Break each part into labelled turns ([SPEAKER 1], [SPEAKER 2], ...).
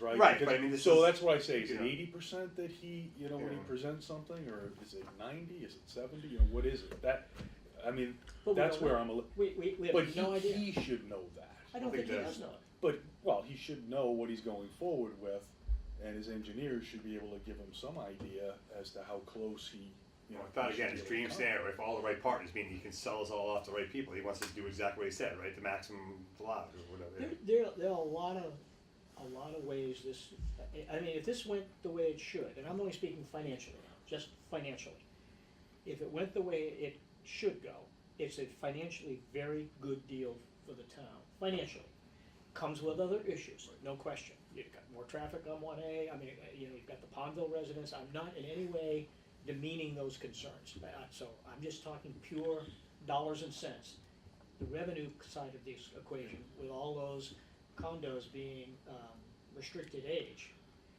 [SPEAKER 1] right?
[SPEAKER 2] Right,
[SPEAKER 1] Because-
[SPEAKER 2] but I mean, this
[SPEAKER 1] so
[SPEAKER 2] is-
[SPEAKER 1] that's what I say. Is it
[SPEAKER 2] yeah.
[SPEAKER 1] eighty percent that he, you know, when he
[SPEAKER 2] Yeah.
[SPEAKER 1] presents something, or is it ninety? Is it seventy? You know, what is it? That, I mean,
[SPEAKER 3] But we
[SPEAKER 1] that's
[SPEAKER 3] don't
[SPEAKER 1] where
[SPEAKER 3] know.
[SPEAKER 1] I'm a. li-
[SPEAKER 3] We, we, we
[SPEAKER 1] but
[SPEAKER 3] have
[SPEAKER 1] he,
[SPEAKER 3] no idea.
[SPEAKER 1] he should know that.
[SPEAKER 3] I don't
[SPEAKER 2] I think
[SPEAKER 3] think he
[SPEAKER 2] that's-
[SPEAKER 3] does know it.
[SPEAKER 1] But well, he should know what he's going forward with, and his engineers should be able to give him some idea as to how close he. You know,
[SPEAKER 2] I thought
[SPEAKER 1] he
[SPEAKER 2] again,
[SPEAKER 1] should
[SPEAKER 2] his
[SPEAKER 1] be able
[SPEAKER 2] dream
[SPEAKER 1] to
[SPEAKER 2] scenario, if all the right partners, meaning he can sell us all off to the right people, he wants us to do exactly what he said, right? The maximum allowed or whatever.
[SPEAKER 3] There,
[SPEAKER 2] yeah.
[SPEAKER 3] there, there are a lot of, a lot of ways this, I- I mean, if this went the way it should, and I'm only speaking financially, just financially. If it went the way it should go, it's a financially very good deal for the town, financially. Comes with other issues, no question. You've got more traffic on one A, I mean, uh, you know, you've got the Pondville residents, I'm not in any way demeaning those concerns. Uh, So I'm just talking pure dollars and cents the revenue side of this equation with all those condos being um, restricted age.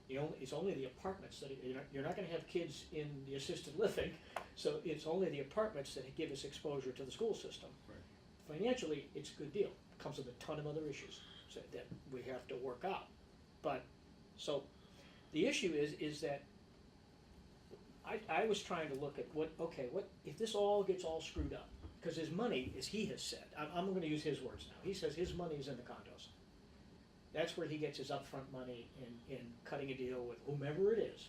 [SPEAKER 3] The only, it's only the apartments that, you're not, you're not gonna have kids in the assisted living, so it's only the apartments that give us exposure to the school system. Financially, it's a good deal, comes with a ton of other issues so that we have to work out. But, so, the issue is, is that I, I was trying to look at what, okay, what, if this all gets all screwed up, because his money, as he has said, I'm, I'm gonna use his words now, he says his money is in the condos. That's where he gets his upfront money in, in cutting a deal with whomever it is,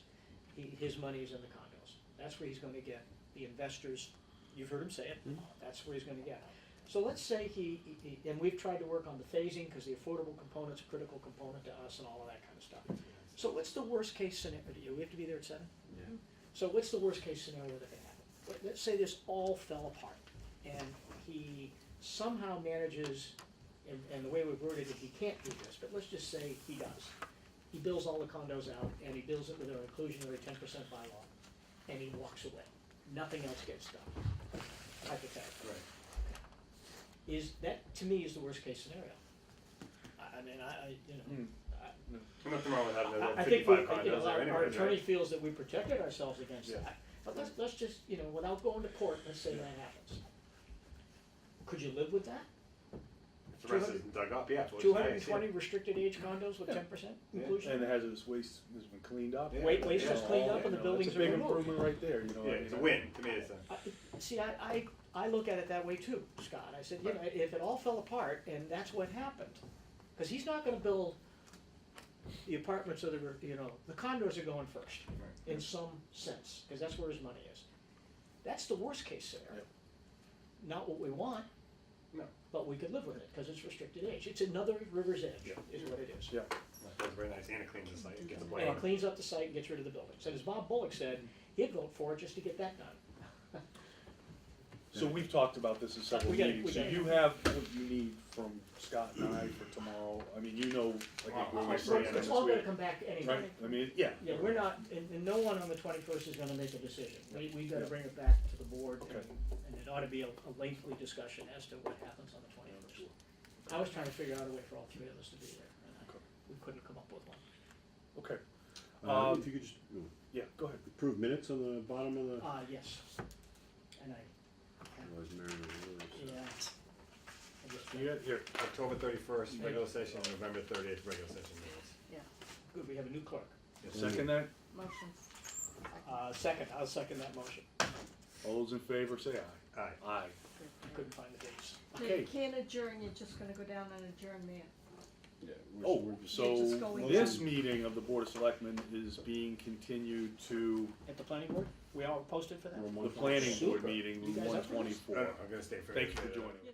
[SPEAKER 3] he, his money is in the condos. That's where he's gonna get the investors, you've heard him say it, that's where he's gonna get. So let's say he, he- he- and we've tried to work on the phasing, because the affordable component's a critical component to us and all of that kind of stuff. So what's the worst case scenario, do we have to be there at seven? So what's the worst case scenario that could happen? Let- Let's say this all fell apart and he somehow manages, and, and the way we've worded it, he can't do this, but let's just say he does. He bills all the condos out and he bills it with an inclusionary ten percent bylaw and he walks away. Nothing else gets done, hypothetically.
[SPEAKER 2] Right.
[SPEAKER 3] Is, that to me is the worst case scenario. I, I mean, I, I, you know.
[SPEAKER 1] Hmm.
[SPEAKER 2] There's Nothing wrong with having
[SPEAKER 3] I-
[SPEAKER 2] another
[SPEAKER 3] I think we,
[SPEAKER 2] fifty-five
[SPEAKER 3] I think
[SPEAKER 2] condos there
[SPEAKER 3] our, our
[SPEAKER 2] anyway,
[SPEAKER 3] attorney
[SPEAKER 2] right?
[SPEAKER 3] feels that we protected ourselves against
[SPEAKER 1] Yeah.
[SPEAKER 3] that, but let's, let's just, you know, without going to court, let's say that happens. Could you live with that?
[SPEAKER 2] If the rest isn't dug up, yeah.
[SPEAKER 3] Two hundred and twenty restricted age condos with
[SPEAKER 1] Yeah.
[SPEAKER 3] ten percent
[SPEAKER 2] Yeah.
[SPEAKER 1] And the
[SPEAKER 3] inclusion?
[SPEAKER 1] hazardous waste has been cleaned up.
[SPEAKER 2] Yeah.
[SPEAKER 3] Wait, waste
[SPEAKER 1] You know,
[SPEAKER 3] is cleaned
[SPEAKER 1] all-
[SPEAKER 3] up and the
[SPEAKER 1] you know,
[SPEAKER 3] buildings are
[SPEAKER 1] It's a big
[SPEAKER 3] removed.
[SPEAKER 1] improvement right there, you know. I
[SPEAKER 2] Yeah,
[SPEAKER 1] mean,
[SPEAKER 2] it's a
[SPEAKER 1] I-
[SPEAKER 2] win, to me it's a.
[SPEAKER 3] I- See, I, I, I look at it that way too, Scott, I said, you know, if it all fell apart and that's what happened, cause he's not gonna build the apartments or the, you know, the condos are going first. in some sense, because that's where his money is. That's the worst case scenario.
[SPEAKER 1] Yep.
[SPEAKER 3] Not what we want.
[SPEAKER 2] No.
[SPEAKER 3] But we could live with it, because it's restricted age. It's another river's edge,
[SPEAKER 1] Yep.
[SPEAKER 3] is what it is.
[SPEAKER 1] Yeah.
[SPEAKER 2] That's very nice, and it cleans the site, it gets away.
[SPEAKER 3] And it cleans up the site and gets rid of the buildings. And as Bob Bullock said, he'd vote for it just to get that done.
[SPEAKER 1] So we've talked about this in several
[SPEAKER 3] We gotta-
[SPEAKER 1] meetings,
[SPEAKER 3] we
[SPEAKER 1] so
[SPEAKER 3] gotta-
[SPEAKER 1] you have what you need from Scott and I for tomorrow, I mean, you know, I think where we
[SPEAKER 2] Alright,
[SPEAKER 3] It's
[SPEAKER 1] stand
[SPEAKER 2] yeah,
[SPEAKER 3] it's
[SPEAKER 1] this
[SPEAKER 3] all gonna
[SPEAKER 1] week.
[SPEAKER 3] come back anyway.
[SPEAKER 1] Right, I mean, yeah.
[SPEAKER 3] Yeah, we're not, and, and no one on the twenty-first is gonna make a decision. We, we gotta
[SPEAKER 1] Yeah.
[SPEAKER 3] bring it back to the board, and,
[SPEAKER 1] Okay.
[SPEAKER 3] and it ought to be a a lengthy discussion as to what happens on the twenty-first. I was trying to figure out a way for all three of us to be there, and I,
[SPEAKER 1] Okay.
[SPEAKER 3] we couldn't come up with one.
[SPEAKER 1] Okay,
[SPEAKER 4] Uh,
[SPEAKER 1] Um,
[SPEAKER 4] if you could just you know,
[SPEAKER 1] yeah, go ahead.
[SPEAKER 4] approve minutes on the bottom of the.
[SPEAKER 3] Uh, yes, and I,
[SPEAKER 4] Otherwise, Mary will ruin it.
[SPEAKER 3] yeah. I guess that-
[SPEAKER 1] You got, here,
[SPEAKER 2] October thirty-first,
[SPEAKER 3] Yeah.
[SPEAKER 2] regular session, and November thirtieth, regular session meetings.
[SPEAKER 3] Good, we have a new clerk.
[SPEAKER 1] second that,
[SPEAKER 5] Motion.
[SPEAKER 3] Uh, second, I'll second that motion.
[SPEAKER 1] all those in favor, say aye.
[SPEAKER 2] Aye.
[SPEAKER 1] Aye.
[SPEAKER 3] I couldn't find the dates.
[SPEAKER 1] Okay.
[SPEAKER 5] You can't adjourn, you're just gonna go down and adjourn there.
[SPEAKER 4] Yeah, we're-
[SPEAKER 1] Oh,
[SPEAKER 4] we're just-
[SPEAKER 5] just
[SPEAKER 1] so
[SPEAKER 5] going-
[SPEAKER 1] this meeting of the Board of Selectmen is being continued to
[SPEAKER 3] At the planning board, we all posted for that?
[SPEAKER 4] we're one
[SPEAKER 1] the
[SPEAKER 4] point.
[SPEAKER 1] planning board
[SPEAKER 3] Super.
[SPEAKER 1] meeting,
[SPEAKER 3] You
[SPEAKER 1] one
[SPEAKER 3] guys up for this?
[SPEAKER 2] I don't
[SPEAKER 1] twenty-four.
[SPEAKER 2] know, I'm gonna stay for.
[SPEAKER 1] Thank you for joining.